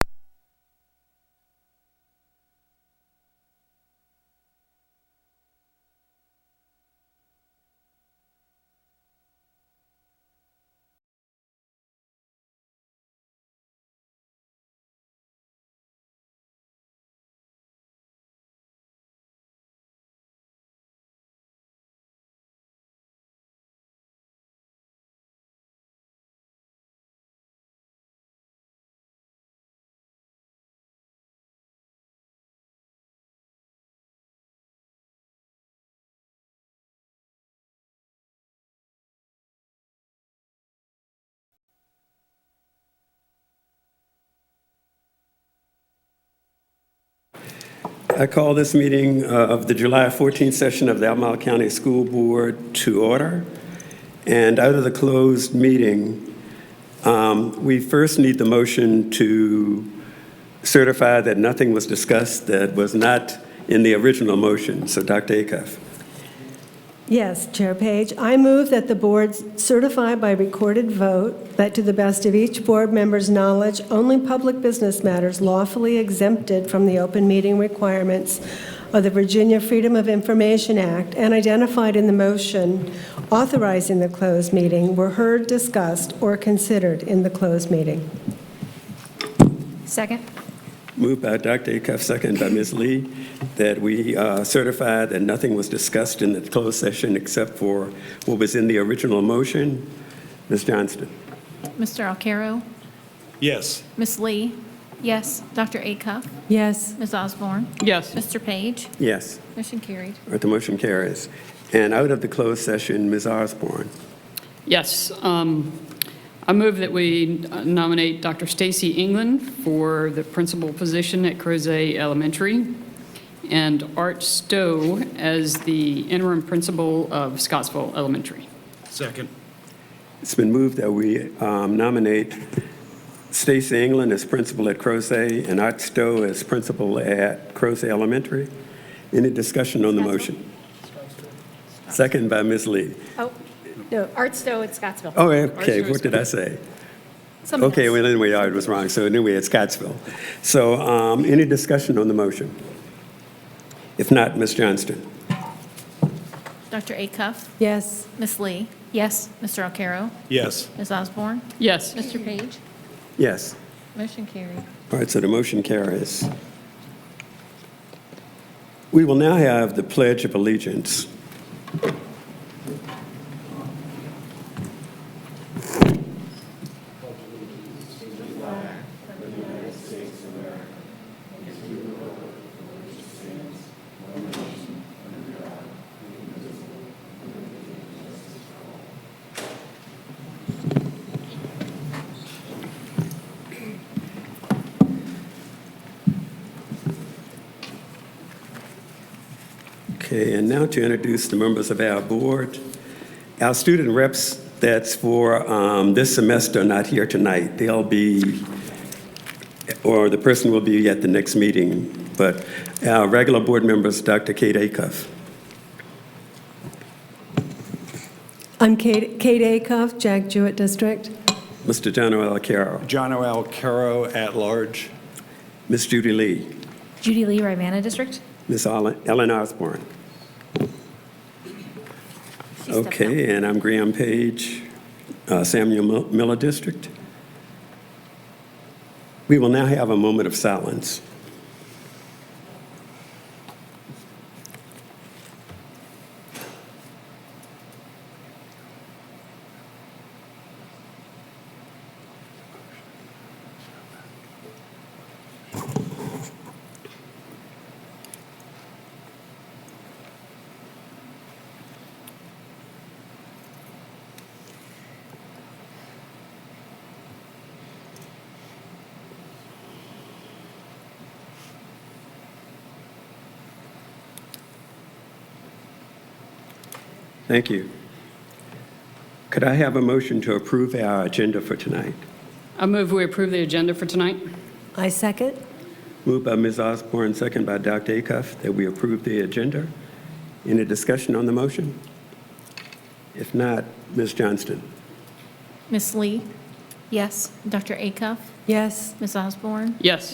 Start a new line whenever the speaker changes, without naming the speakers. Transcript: I call this meeting uh, of the July 14th session of the Albemarle County School Board to order. And out of the closed meeting, um, we first need the motion to certify that nothing was discussed that was not in the original motion. So Dr. Acuff.
Yes, Chair Page, I move that the board certify by recorded vote that to the best of each board member's knowledge, only public business matters lawfully exempted from the open meeting requirements of the Virginia Freedom of Information Act and identified in the motion authorizing the closed meeting were heard, discussed, or considered in the closed meeting.
Second?
Moved by Dr. Acuff, second by Ms. Lee, that we uh, certify that nothing was discussed in the closed session except for what was in the original motion. Ms. Johnston.
Mr. Alcarro?
Yes.
Ms. Lee? Yes. Dr. Acuff?
Yes.
Ms. Osborne?
Yes.
Mr. Page?
Yes,
Motion carried.
all right, the motion carries. And out of the closed session, Ms. Osborne.
Yes. um, I move that we nominate Dr. Stacy England for the principal position at Crozet Elementary and Art Stowe as the interim principal of Scottsville Elementary.
Second.
It's been moved that we um, nominate Stacy England as principal at Crozet and Art Stowe as principal at Crozet Elementary. Any discussion on the motion? Second by Ms. Lee.
Oh, no, Art Stowe at Scottsville.
Oh, okay, what did I say?
Someone
Okay,
else.
well, anyway, I was wrong, so anyway, it's Scottsville. So um, any discussion on the motion? If not, Ms. Johnston.
Dr. Acuff?
Yes.
Ms. Lee? Yes. Mr. Alcarro?
Yes.
Ms. Osborne?
Yes.
Mr. Page?
Yes.
Motion carried.
All right, so the motion carries. We will now have the Pledge of Allegiance. Okay, and now to introduce the members of our board. Our student reps that's for um, this semester are not here tonight. They'll be, or the person will be at the next meeting. But our regular board members, Dr. Kate Acuff.
I'm Kate Kate Acuff, Jack Jewett District.
Mr. John O. Carroll,
John O. Alcaro at large.
Ms. Judy Lee,
Judy Lee, Rivanna District?
Ms. Ellen Osborne.
She stepped out.
Okay, and I'm Graham Page, uh, Samuel Mil- Miller District. We will now have a moment of silence. Thank you. Could I have a motion to approve our agenda for tonight?
I move we approve the agenda for tonight.
I second.
Moved by Ms. Osborne, second by Dr. Acuff, that we approve the agenda. Any discussion on the motion? If not, Ms. Johnston.
Ms. Lee? Yes. Dr. Acuff?
Yes.
Ms. Osborne?
Yes.